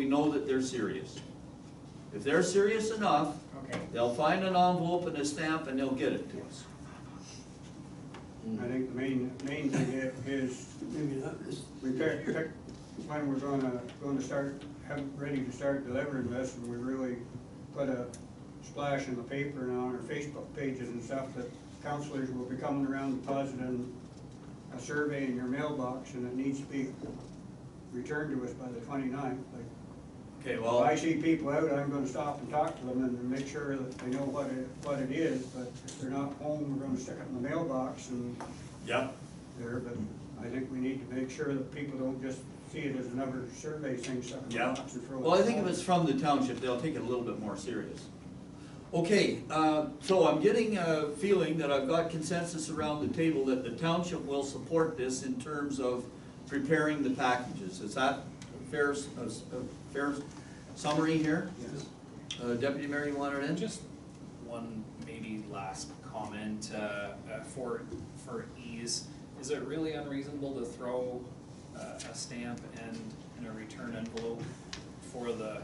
know that they're serious. If they're serious enough, Okay, they'll find an envelope and a stamp and they'll get it to us. I think the main, main thing i- is, Maybe not this. we pick, pick when we're gonna, gonna start, have, it ready to start delivering this, and we really put a splash in the paper and on our Facebook pages and stuff, that counselors will be coming around depositing a survey in your mailbox, and it needs to be returned to us by the 29th. like, Okay, if I well, see people out, I'm gonna stop and talk to them and make sure that they know what it, what it is, but if they're not home, we're gonna stick it in the mailbox and yep, there, but I think we need to make sure that people don't just see it as another survey thing, stuff in the yep. box and throw it. Well, I think if it's from the township, they'll take it a little bit more serious. Okay, uh, so I'm getting a feeling that I've got consensus around the table that the township will support this in terms of preparing the packages. Is that a fair, s- a s- a fair summary here? Yes. Uh, Deputy Mayor, you want it in? Just one maybe last comment, uh, uh, for, for ease, is it really unreasonable to throw uh, a stamp and, and a return envelope for the,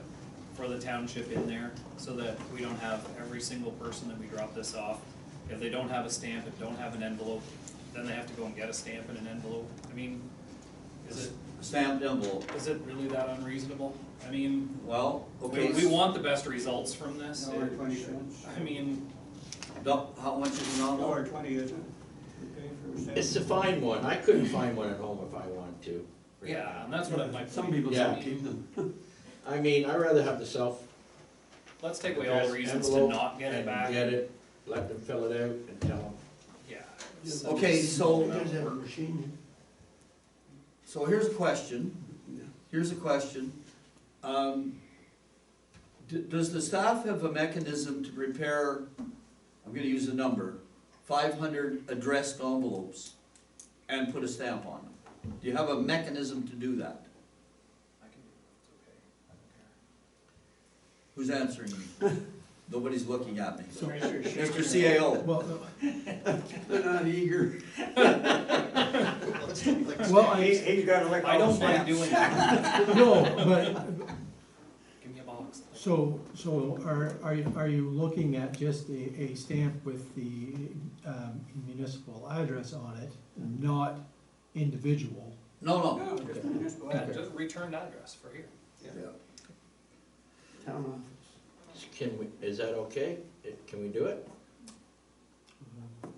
for the township in there? So that we don't have every single person that we drop this off, if they don't have a stamp and don't have an envelope, then they have to go and get a stamp and an envelope, I mean, is it, Stamped envelope. is it really that unreasonable? I mean, Well, we, okay. we want the best results from this. Dollar It- twenty cents, I mean, Doc- How much is an envelope? dollar twenty, isn't it? We pay for a stamp. It's to find one, I couldn't find one at home if I wanted to. right yeah, and that's what it might. Some people Yeah. don't keep them. now. I mean, I'd rather have the self. Let's take away all the reasons to envelope not get it and back. Get it, let them fill it out and tell them. Yeah. it's- Okay, so- You guys have a machine. So here's a question, Yeah. here's a question. Um, d- Does the staff have a mechanism to prepare, I'm gonna use a number, five hundred addressed envelopes and put a stamp on them? Do you have a mechanism to do that? I can do it, it's okay, I don't care. Who's answering me? Nobody's looking at me. Commissioner Mr. Shaker- CAO, Well, uh, no, They're not eager. well, I, He, he's got a lick I all the don't mind stamps. doing that. no, but, Give me a box. so, so are, are you, are you looking at just a, a stamp with the um, municipal address on it, not individual? no, no. No, just municipal Yeah, address. just return address for here. Town office. Can we, is that okay? It- Can we do it? Um,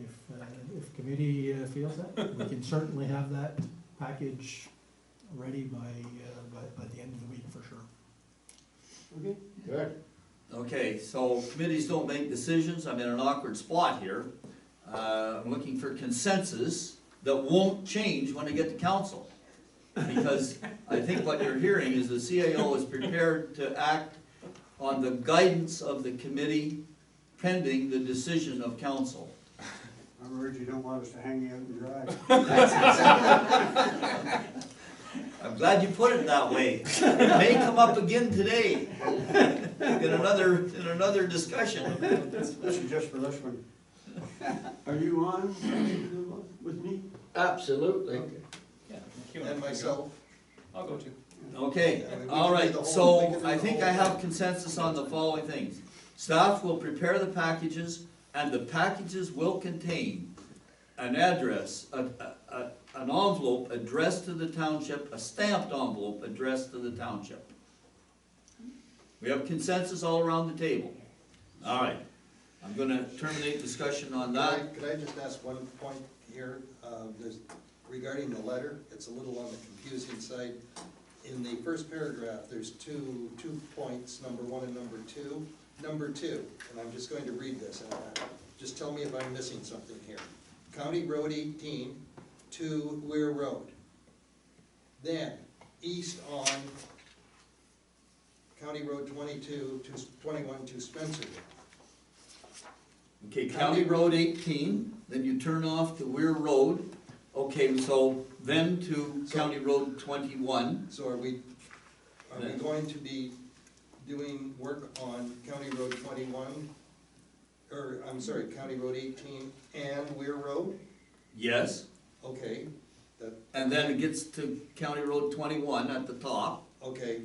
If, if, uh, if committee uh, feels that, we can certainly have that package ready by, uh, by, by the end of the week for sure. Okay. Good. Okay, so committees don't make decisions, I'm in an awkward spot here. Uh, I'm looking for consensus that won't change when I get to council. Because I think what you're hearing is the CAO is prepared to act on the guidance of the committee pending the decision of council. In other words, you don't want us to hang you out and dry. I'm glad you put it that way. It may come up again today in another, in another discussion. This is just for this one. Are you on with me? Absolutely. Yeah. Q A. And myself. I'll go too. Okay, Yeah, we can all do right, the whole- we can so do I the think whole I have thing. consensus on the following things. Staff will prepare the packages, and the packages will contain an address, a, a, a- an envelope addressed to the township, a stamped envelope addressed to the township. We have consensus all around the table. All right, I'm gonna terminate discussion on Could I, that. could I just ask one point here, uh, there's, regarding the letter, it's a little on the confusing side. In the first paragraph, there's two, two points, number one and number two. Number two, and I'm just going to read this, and uh, just tell me if I'm missing something here. County Road eighteen to Weir Road. Then, east on County Road twenty-two to, twenty-one to Spencer. Okay, County Road eighteen, then you turn off to Weir Road, okay, so then to So- County Road twenty-one. So are we, are we going to be doing work on County Road twenty-one? Or, I'm sorry, County Road eighteen and Weir Road? Yes. Okay, that, And then it gets to County Road twenty-one at the top. okay.